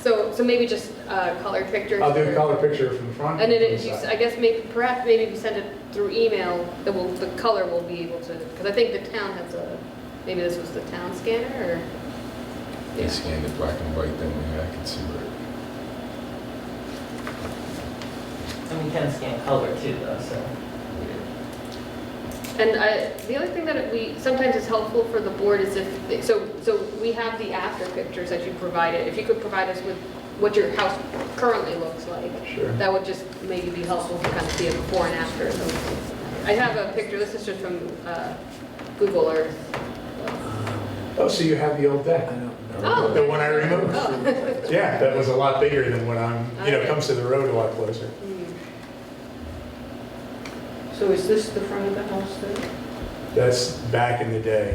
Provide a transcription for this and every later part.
So maybe just uh, color pictures. I'll do or- a color picture from the front. And then from the it, you, side. I guess maybe, perhaps maybe if you send it through email, that will, the color will be able to, because I think the town has a, maybe this was the town scanner or? They scanned it black and white, then yeah, I can see where. And we can scan color too, though, so. And I, the other thing that we, sometimes is helpful for the board is if, they- so, so we have the after pictures that you provided. If you could provide us with what your house currently looks like, Sure. that would just maybe be helpful to kind of see a before and after. So I have a picture, this is just from uh, Google Earth. Oh, so you have the old deck? Oh. The one I removed? Oh. Yeah, that was a lot bigger than what I'm, you know, Okay. comes to the road a lot closer. Hmm. So is this the front of the house then? That's back in the day,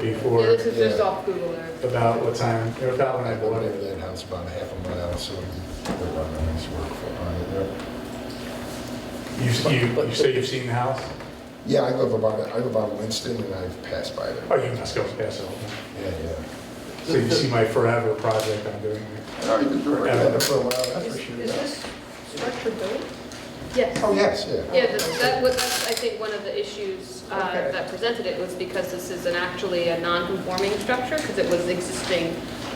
Before- Yeah, this is just Yeah. off Google Earth. about what time, or about when I I bought believe it. that house about a half a mile, so the runners work for on it there. You, you, you say you've seen the house? Yeah, I live about, I live on Winston and I've passed by there. Oh, you must go past it. all. Yeah, yeah. So you see my forever project I'm doing here. I've already been doing that for a while, that's for sure. Is this structure built? Yes. Oh, yes, yeah. Yeah, that- that was, that's, I think, one of the issues uh, Okay. that presented it was because this is an, actually a non-conforming structure, because it was existing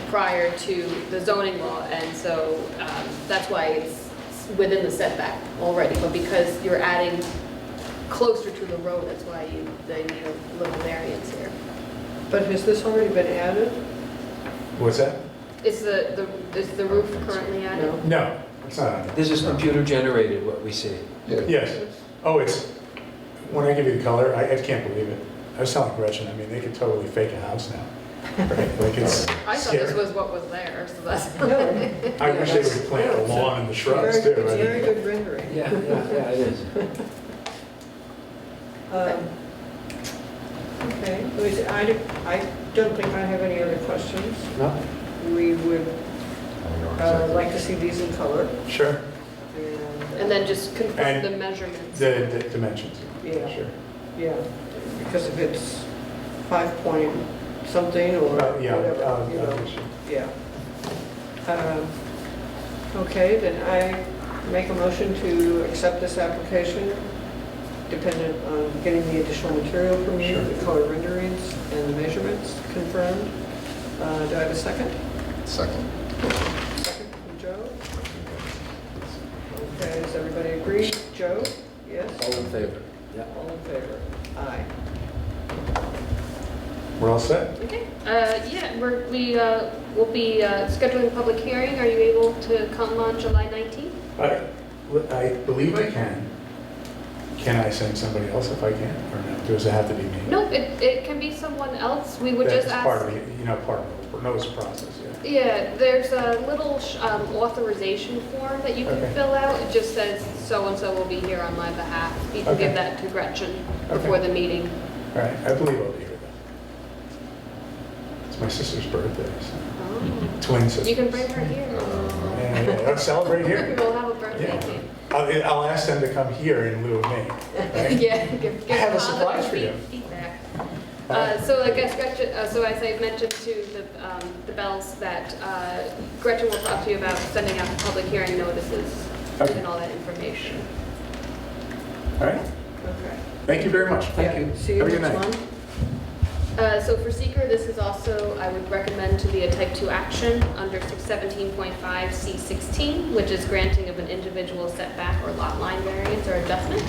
prior to the zoning law, and so um, that's why it's within the setback already, but because you're adding closer to the road, that's why you, they need a little variance here. But has this already been added? What's that? Is the, the is the roof currently added? No. No, it's not on there. This is computer generated, what we see. Yeah, Yes. Oh, it's, when I give you the color, I, I can't believe it. I was telling Gretchen, I mean, they could totally fake a house now, right? Like it's I thought this scary. was what was there, so that's. No. I wish they would plant a lawn and the shrubs Very too. good- I It's very mean, good rendering. Yeah, yeah, yeah, it is. Um, Okay, Well, is it- I don't- I don't think I have any other questions. No? We would I know uh, exactly. like to see these in color. Sure, And, And then just confirm And the measurements. the, the dimensions. Yeah. Sure. Yeah, because if it's five point something or Well, yeah, whatever, uh, you know. uh, sure. Yeah. Um, Okay, then I make a motion to accept this application dependent on getting the additional material from you, Sure. the color renderings and the measurements confirmed. Uh, Do I have a second? Second. Second from Joe? Okay, does everybody agree? Joe? Yes? All in favor? Yeah. All in favor? Aye. We're all set? Okay, uh, yeah, we're, we, uh, will be, uh, scheduling a public hearing. Are you able to come on July nineteenth? I, I believe I can. Can I send somebody else if I can, or no? Does it have to be me? No, it, it can be someone else. We would just That's part ask. of the, you know, part of the, no, it's a process, yeah. Yeah, there's a little, sh- um, authorization form that you Okay. can fill out. It just says so-and-so will be here on my behalf. You can Okay. give that to Gretchen Okay. before the meeting. All right, I believe I'll be here then. It's my sister's birthday, so, Oh. twin sister. You can bring her here. Yeah, yeah, I'll celebrate here. We'll have a birthday Yeah. cake. I'll, I'll ask them to come here in lieu of me. right? Yeah, give, give I have a positive surprise for you. feed- feedback. Uh, So I guess Gretchen, uh, so as I mentioned to the, um, the Bells, that uh, Gretchen will talk to you about sending out the public hearing notices Okay. and all that information. All right, Okay. thank you very much. Thank Yeah, you. See you Have a good next night. month. Uh, So for seeker, this is also, I would recommend to be a type 2 action under 617.5C16, which is granting of an individual setback or lot line variance or adjustment.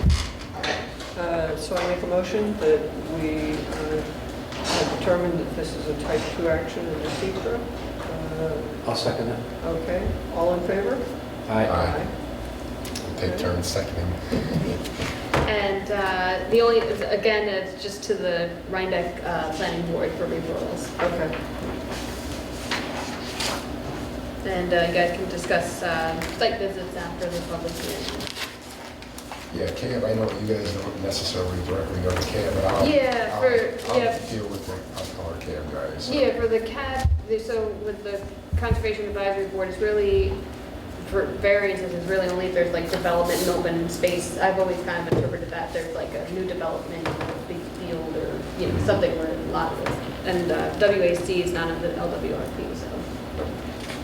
Uh, So I make a motion that we uh, have determined that this is a type 2 action in the secret. Uh I'll second that. Okay, all in favor? Aye. Aye. We'll Take turns seconding. And uh, the only, again, it's just to the Rhinebeck uh, Planning Board for referrals. Okay, And uh, you guys can discuss uh, site visits after the public hearing. Yeah, cab, I know you guys don't necessarily directly go to cab, but I'll. Yeah, I'll- for- yeah. I'll deal with the, I'll call our cab guys. Yeah, for the CAD, the- so with the Conservation Advisory Board, it's really, for variances, it's really only if there's like development and open space. I've always kind of interpreted that there's like a new development, a big field or, you know, something where a lot of, and uh, WAC is not in the LWRP, so.